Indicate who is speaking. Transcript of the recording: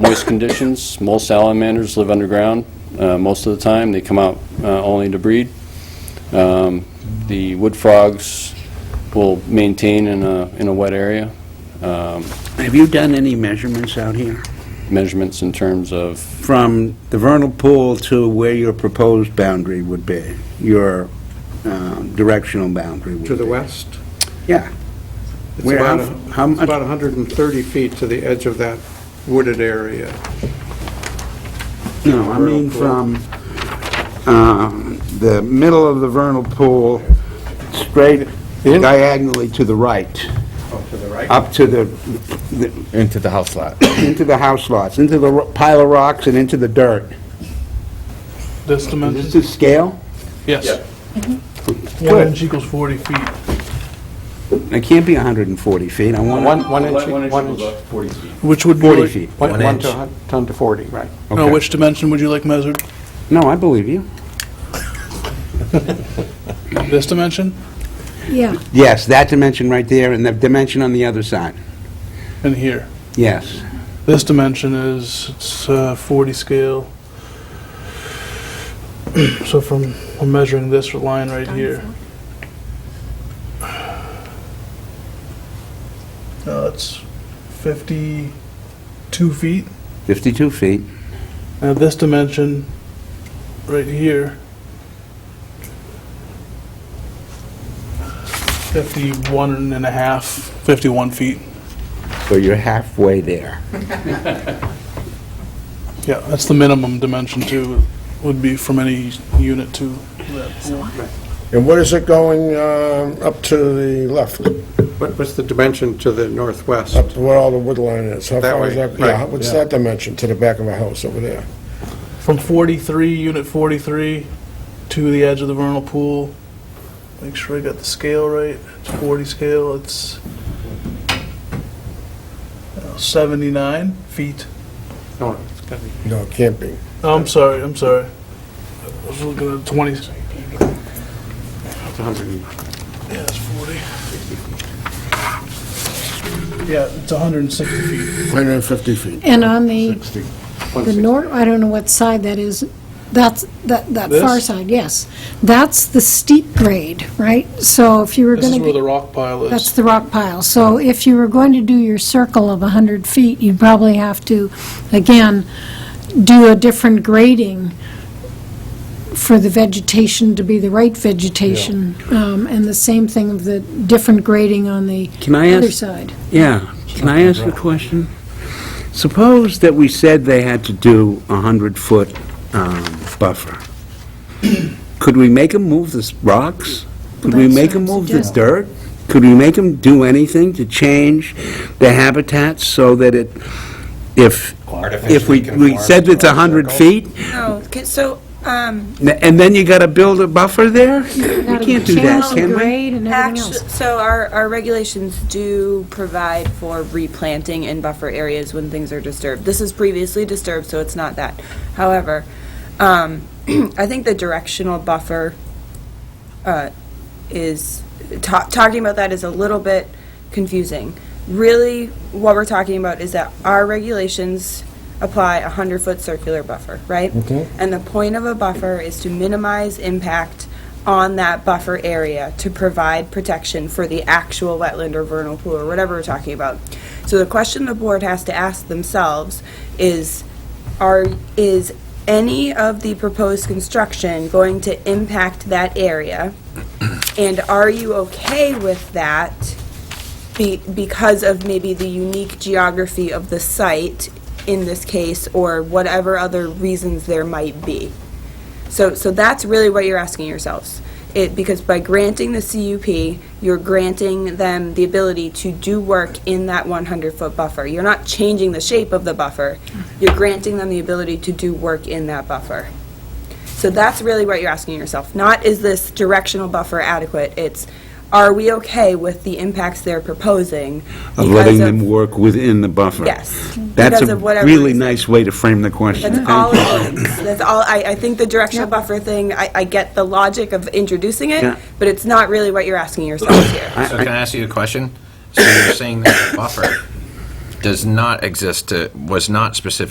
Speaker 1: moist conditions. Most salamanders live underground uh, most of the time. They come out uh, only to breed. Um, The wood frogs will maintain in a, in a wet area. Um,
Speaker 2: Have you done any measurements out here?
Speaker 1: Measurements in terms of,
Speaker 2: From the vernal pool to where your proposed boundary would be, your um, directional boundary would be?
Speaker 3: To the west?
Speaker 2: Yeah.
Speaker 3: It's
Speaker 2: Where,
Speaker 3: about
Speaker 2: how,
Speaker 3: a-
Speaker 2: how
Speaker 3: It's about
Speaker 2: much,
Speaker 3: 130 feet to the edge of that wooded area.
Speaker 2: no, I mean from
Speaker 3: Vernal
Speaker 2: um, the middle of the vernal pool, straight
Speaker 3: In?
Speaker 2: diagonally to the right,
Speaker 3: Oh, to the right?
Speaker 2: up to the, the-
Speaker 4: Into the house lot.
Speaker 2: into the house lots, into the ro- pile of rocks and into the dirt.
Speaker 5: This dimension?
Speaker 2: Is this the scale?
Speaker 5: Yes. One
Speaker 2: Good.
Speaker 5: inch equals 40 feet.
Speaker 2: It can't be 140 feet, I want
Speaker 3: One, one inch,
Speaker 1: One inch
Speaker 3: one
Speaker 1: was
Speaker 3: inch,
Speaker 1: about 40 feet.
Speaker 5: Which would be...
Speaker 2: 40 feet.
Speaker 3: one one to, hun- ton to 40, right.
Speaker 5: No,
Speaker 2: Okay.
Speaker 5: which dimension would you like measured?
Speaker 2: No, I believe you.
Speaker 5: This dimension?
Speaker 6: Yeah,
Speaker 2: Yes, that dimension right there, and the dimension on the other side.
Speaker 5: And here.
Speaker 2: Yes.
Speaker 5: This dimension is, it's uh, 40 scale. So from, we're measuring this line right here. Uh, it's 52 feet.
Speaker 2: 52 feet.
Speaker 5: Now this dimension, right here, 51 and a half, 51 feet.
Speaker 2: So you're halfway there.
Speaker 5: Yeah, that's the minimum dimension too, would be from any unit to that pool.
Speaker 7: And what is it going um, up to the left, up
Speaker 3: What, what's the dimension to the northwest?
Speaker 7: to where all the wood line is? How
Speaker 3: That
Speaker 7: far is
Speaker 3: way,
Speaker 7: that- Yeah,
Speaker 3: right,
Speaker 7: what's
Speaker 3: yeah.
Speaker 7: that dimension to the back of a house over there?
Speaker 5: From 43, unit 43, to the edge of the vernal pool. Make sure I got the scale right. It's 40 scale, it's uh, 79 feet.
Speaker 3: No, no, it's gotta be-
Speaker 7: No, it can't be.
Speaker 5: Oh, I'm sorry, I'm sorry. I was looking at 20, yeah,
Speaker 3: it's 100 and-
Speaker 5: it's 40. Yeah, it's 160 feet.
Speaker 7: 150 feet.
Speaker 6: and on the,
Speaker 7: 60.
Speaker 6: the north, I don't know what side that is, that's, that, that far
Speaker 5: This?
Speaker 6: side, yes. That's the steep grade, right? So if you were
Speaker 5: This
Speaker 6: gonna
Speaker 5: is where
Speaker 6: be,
Speaker 5: the rock pile is.
Speaker 6: that's the rock pile. So if you were going to do your circle of 100 feet, you'd probably have to, again, do a different grading for the vegetation to be the right vegetation. Um, and the same thing of the different grading on the
Speaker 2: Can I
Speaker 6: other
Speaker 2: ask,
Speaker 6: side.
Speaker 2: yeah, can I ask a question? Suppose that we said they had to do a 100-foot buffer. Could we make them move the s- rocks? Could we
Speaker 6: That's
Speaker 2: make
Speaker 6: what I'm
Speaker 2: them move the
Speaker 6: suggesting.
Speaker 2: dirt? Could we make them do anything to change the habitat so that it, if, if we we said it's 100 feet,
Speaker 8: Oh, okay, so, um,
Speaker 2: N- And then you got to build a buffer there? We
Speaker 6: Gotta
Speaker 2: can't do that,
Speaker 6: channel
Speaker 2: can we?
Speaker 6: grade and everything
Speaker 8: actually,
Speaker 6: else.
Speaker 8: so our, our regulations do provide for replanting in buffer areas when things are disturbed. This is previously disturbed, so it's not that. However, um, I think the directional buffer, uh, is, ta- talking about that is a little bit confusing. Really, what we're talking about is that our regulations apply a 100-foot circular buffer, right? Okay. And the point of a buffer is to minimize impact on that buffer area to provide protection for the actual wetland or vernal pool or whatever we're talking about. So the question the board has to ask themselves is, are, is any of the proposed construction going to impact that area? And are you okay with that be- because of maybe the unique geography of the site in this case, or whatever other reasons there might be? So, so that's really what you're asking yourselves. It, because by granting the CUP, you're granting them the ability to do work in that 100-foot buffer. You're not changing the shape of the buffer. You're granting them the ability to do work in that buffer. So that's really what you're asking yourself. Not, is this directional buffer adequate? It's, are we okay with the impacts they're proposing?
Speaker 2: Of
Speaker 8: because
Speaker 2: letting
Speaker 8: of-
Speaker 2: them work within the buffer?
Speaker 8: Yes.
Speaker 2: That's
Speaker 8: Because
Speaker 2: a
Speaker 8: of whatever
Speaker 2: really
Speaker 8: reason.
Speaker 2: nice way to frame the question.
Speaker 8: That's
Speaker 2: Thank
Speaker 8: all
Speaker 2: you.
Speaker 8: it is. That's all, I, I think the directional buffer thing, I, I get the logic of introducing
Speaker 2: Yeah.
Speaker 8: it, but it's not really what you're asking yourselves here.
Speaker 2: I-
Speaker 9: So can I ask you a question? So you're saying that the buffer does not exist, to- was not specific